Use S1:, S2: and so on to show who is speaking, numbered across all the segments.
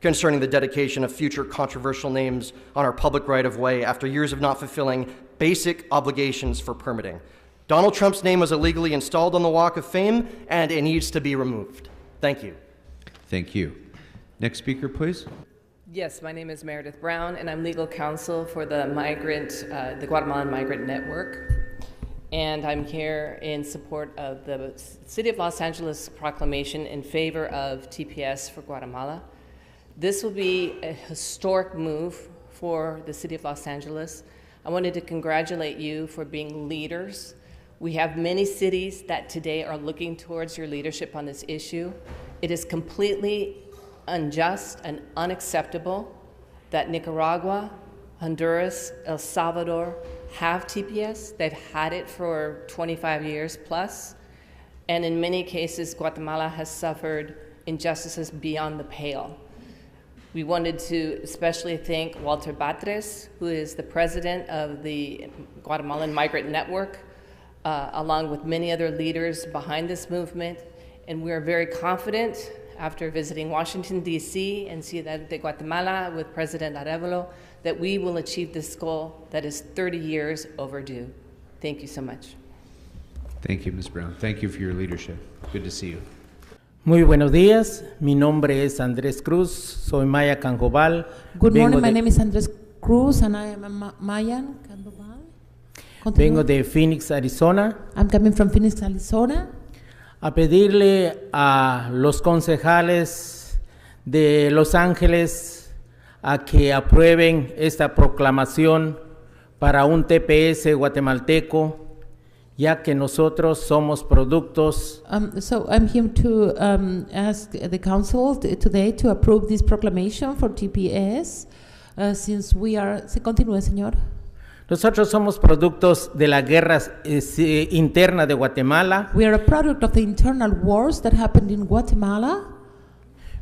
S1: concerning the dedication of future controversial names on our public right of way after years of not fulfilling basic obligations for permitting. Donald Trump's name was illegally installed on the Walk of Fame and it needs to be removed. Thank you.
S2: Thank you. Next speaker, please.
S3: Yes, my name is Meredith Brown, and I'm legal counsel for the migrant, uh, the Guatemalan Migrant Network. And I'm here in support of the City of Los Angeles proclamation in favor of TPS for Guatemala. This will be a historic move for the City of Los Angeles. I wanted to congratulate you for being leaders. We have many cities that today are looking towards your leadership on this issue. It is completely unjust and unacceptable that Nicaragua, Honduras, El Salvador have TPS. They've had it for 25 years plus, and in many cases, Guatemala has suffered injustices beyond the pale. We wanted to especially thank Walter Batres, who is the president of the Guatemalan Migrant Network, uh, along with many other leaders behind this movement. And we are very confident after visiting Washington, D.C. and Ciudad de Guatemala with President Arevalo that we will achieve this goal that is 30 years overdue. Thank you so much.
S2: Thank you, Ms. Brown. Thank you for your leadership. Good to see you.
S4: Muy buenos días. Mi nombre es Andrés Cruz. Soy Maya Canjobal.
S5: Good
S4: Vengo
S5: morning, my
S4: de-
S5: name is Andres Cruz and I am a Ma- Mayan Candoval. Continue.
S4: Vengo de Phoenix, Arizona.
S5: I'm coming from Phoenix, Arizona.
S4: a pedirle a los concejales de Los Ángeles a que aprueben esta proclamación para un TPS guatemalteco, ya que nosotros somos productos
S5: Um, so I'm here to um, ask the council t- today to approve this proclamation for TPS uh, since we are. Se continúe, señor.
S4: nosotros somos productos de la guerra eh, si- interna de Guatemala,
S5: We are a product of the internal wars that happened in Guatemala.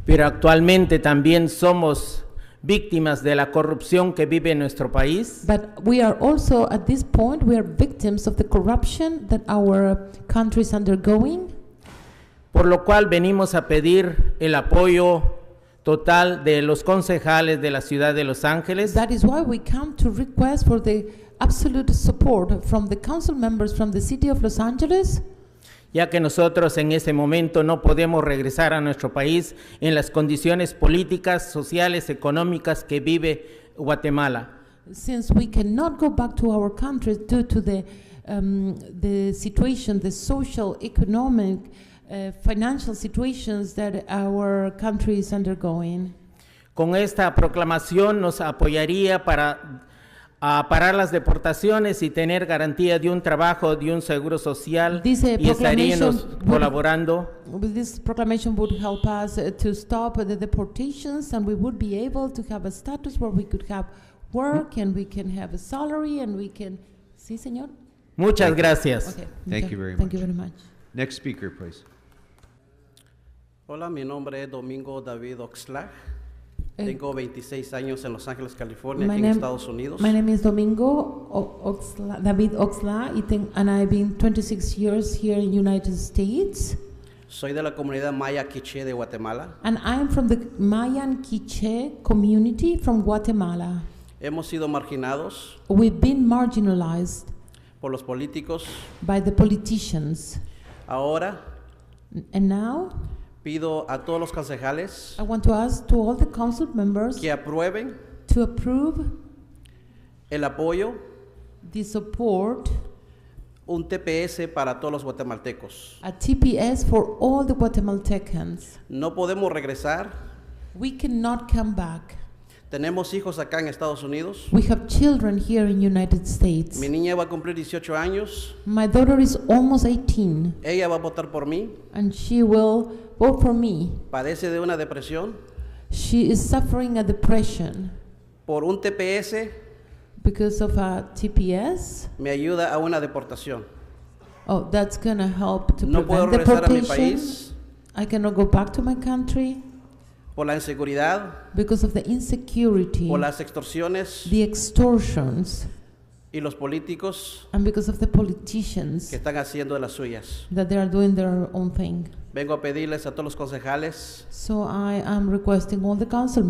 S4: pero actualmente también somos víctimas de la corrupción que vive nuestro país.
S5: But we are also, at this point, we are victims of the corruption that our country is undergoing.
S4: por lo cual venimos a pedir el apoyo total de los concejales de la ciudad de Los Ángeles
S5: That is why we come to request for the absolute support from the council members from the city of Los Angeles,
S4: ya que nosotros en ese momento no podemos regresar a nuestro país en las condiciones políticas, sociales, económicas que vive Guatemala.
S5: since we cannot go back to our countries due to the, um, the situation, the social, economic, uh, financial situations that our country is undergoing.
S4: Con esta proclamación nos apoyaría para a parar las deportaciones y tener garantía de un trabajo, de un seguro social
S5: Dice
S4: y estaríamos
S5: proclamation-
S4: colaborando.
S5: With This proclamation would help us uh, to stop the deportations, and we would be able to have a status where we could have work, and we can have a salary, and we can. Sí, señor.
S4: Muchas gracias.
S5: Okay.
S2: Thank you very
S5: Thank you
S2: much.
S5: very much.
S2: Next speaker, please.
S6: Hola, mi nombre es Domingo David Oxlack.
S5: Eh,
S6: Tengo 26 años en Los Ángeles, California,
S5: my
S6: aquí en
S5: name-
S6: Estados Unidos.
S5: My name is Domingo O- Oxla, David Oxla, y ten- and I've been 26 years here in United States,
S6: Soy de la comunidad maya quiché de Guatemala.
S5: and I am from the Mayan Quiche community from Guatemala.
S6: Hemos sido marginados
S5: We've been marginalized
S6: por los políticos.
S5: by the politicians,
S6: Ahora
S5: and now
S6: pido a todos los concejales
S5: I want to ask to all the council members
S6: que aprueben
S5: to approve
S6: el apoyo,
S5: the support
S6: un TPS para todos los guatemaltecos.
S5: at TPS for all the Guatemaltecans.
S6: No podemos regresar.
S5: We cannot come back.
S6: Tenemos hijos acá en Estados Unidos.
S5: We have children here in United States.
S6: Mi niña va a cumplir 18 años.
S5: My daughter is almost 18
S6: Ella va a votar por mí.
S5: and she will vote for me.
S6: Padece de una depresión.
S5: She is suffering a depression
S6: Por un TPS
S5: because of a TPS.
S6: me ayuda a una deportación.
S5: Oh, that's gonna help to
S6: No puedo
S5: prevent
S6: regresar a mi
S5: deportation.
S6: país
S5: I cannot go back to my country
S6: por la inseguridad,
S5: because of the insecurity.
S6: por las extorsiones
S5: the extortions
S6: y los políticos
S5: and because of the politicians
S6: que están haciendo de las suyas.
S5: that they are doing their own thing.
S6: Vengo a pedirles a todos los concejales
S5: So I am requesting all the council